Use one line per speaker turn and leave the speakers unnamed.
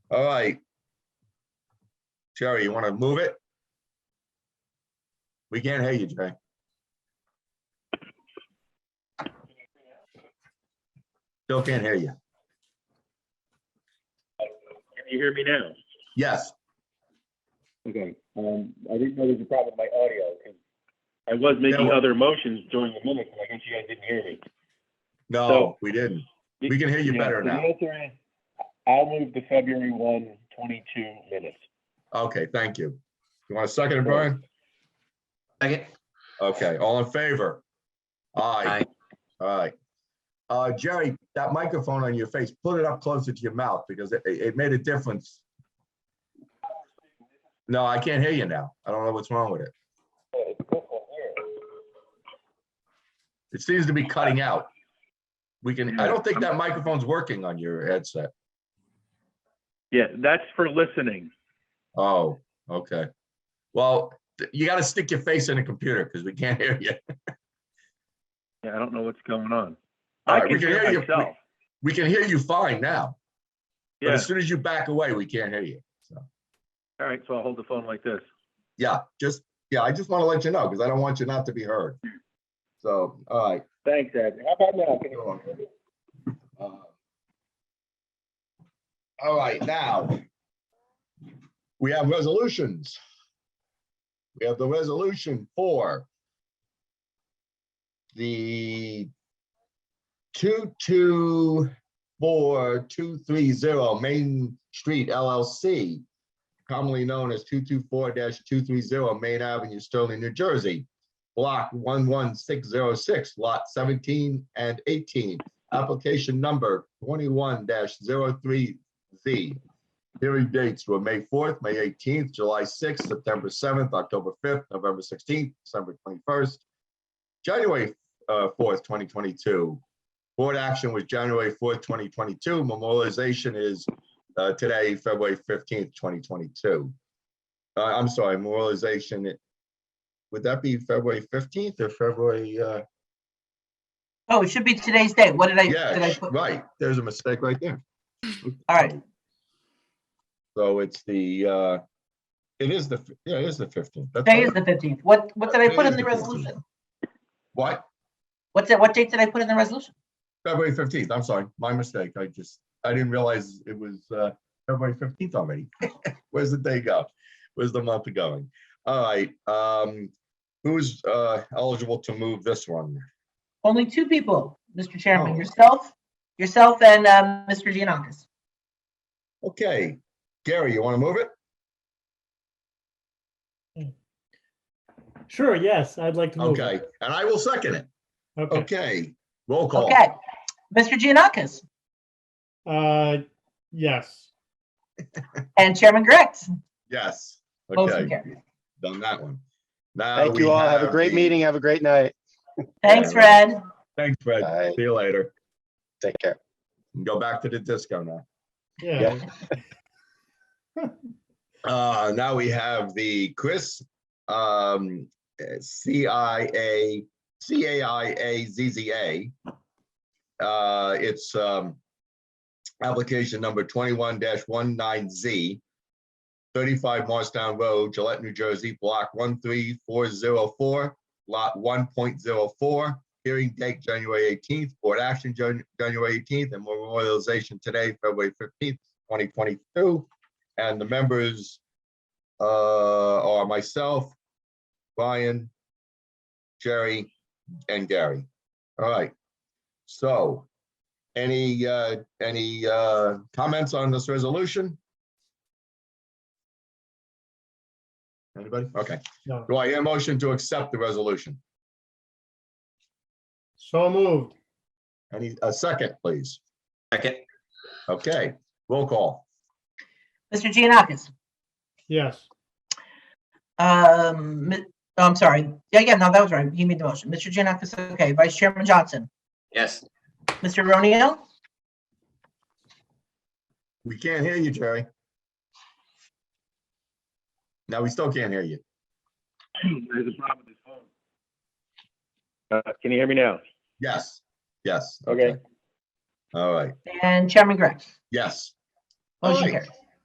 All right. Jerry, you want to move it? We can't hear you, Jerry. Still can't hear you.
Can you hear me now?
Yes,
Okay, um, I didn't know there was a problem with my audio, 'cause I was making
Yeah.
other motions during the minutes, and I guess you guys didn't hear me.
no,
So-
we didn't. We can hear you
Yeah,
better
so The
now.
answer is, I'll move the February one, twenty-two minutes.
Okay, thank you. You want a second, it, Brian?
Second,
Okay, all in favor? Aye.
Aye.
All right. Uh, Jerry, that microphone on your face, put it up closer to your mouth because it, it made a difference. No, I can't hear you now. I don't know what's wrong with it. It seems to be cutting out. We can, I don't think that microphone's working on your headset.
Yeah, that's for listening.
Oh, okay. Well, th- you gotta stick your face in the computer because we can't hear you.
Yeah, I don't know what's going on.
All
I
right, we
can
can
hear
hear you.
myself.
We can hear you fine now, but
Yeah,
as soon as you back away, we can't hear you. So,
all right, so I'll hold the phone like this.
yeah, just, yeah, I just want to let you know because I don't want you not to be heard. So, all right.
Thanks, Ed. How about now? Can you-
Uh, All right, now. We have resolutions. We have the resolution for the two, two, four, two, three, zero Main Street LLC, commonly known as two, two, four two, three, zero Main Avenue, Sterling, New Jersey, block one, one, six, zero, six, lot seventeen and eighteen application number twenty-one 3 Z. Hearing dates were May fourth, May eighteenth, July sixth, September seventh, October fifth, November sixteenth, December twenty-first, January uh, fourth, twenty twenty-two. Board action was January fourth, twenty twenty-two. Memorialization is uh, today, February fifteenth, twenty twenty-two. Uh, I'm sorry, memorialization, would that be February fifteenth or February, uh,
Oh, it should be today's date. What did I, did I
Yeah,
put?
right, there's a mistake right there.
All right.
So it's the, uh, it is the, f- yeah, it is the fifteenth.
Today is the fifteenth. What, what did I
Today
put in
is
the
the 15th.
resolution?
What?
What's that, what date did I put in the resolution?
February fifteenth, I'm sorry, my mistake, I just, I didn't realize it was, uh, February fifteenth already. Where's the day go? Where's the month going? All right, um, who's, uh, eligible to move this one?
Only two people, Mr. Chairman,
Oh.
yourself, yourself and um, Mr. Giannakis.
Okay, Gary, you wanna move it?
Sure, yes, I'd like to move. it.
Okay, and I will second it,
Okay,
okay, roll call.
Okay. Mr. Giannakis
uh, yes,
and Chairman Grex.
Yes,
Motion
okay.
carries.
done that one. Now
Thank
Uh, we
you all. Have a great
the-
meeting. Have a great night.
Thanks, Fred.
Thanks, Fred.
All right.
See you later.
Take care.
Go back to the disco now.
yeah.
Uh, now we have the Chris, um, eh, CIA, CAIAZZA. Uh, it's, um, application number twenty-one 19 Z, thirty-five Morristown Road, Gillette, New Jersey, block one three four zero four, lot one point zero four. Hearing date January eighteenth, board action Jan- January eighteenth, and memorialization today, February fifteenth, twenty twenty-two. And the members uh, are myself, Brian, Jerry, and Gary. All right. So any, uh, any uh, comments on this resolution? Anybody? Okay.
No.
Do I hear a motion to accept the resolution?
So moved,
Any, a second, please.
second,
Okay, roll call.
Mr. Giannakis.
yes,
Um, mi- oh, I'm sorry. Yeah, yeah, no, that was right. You made the motion. Mr. Giannakis, okay. Vice Chairman Johnson,
yes,
Mr. Ronio,
We can't hear you, Jerry. No, we still can't hear you.
There's a problem with this phone. Uh, can you hear me now?
Yes, yes.
Okay.
All right,
and Chairman Grex.
yes.
Motion
Aye.
carries.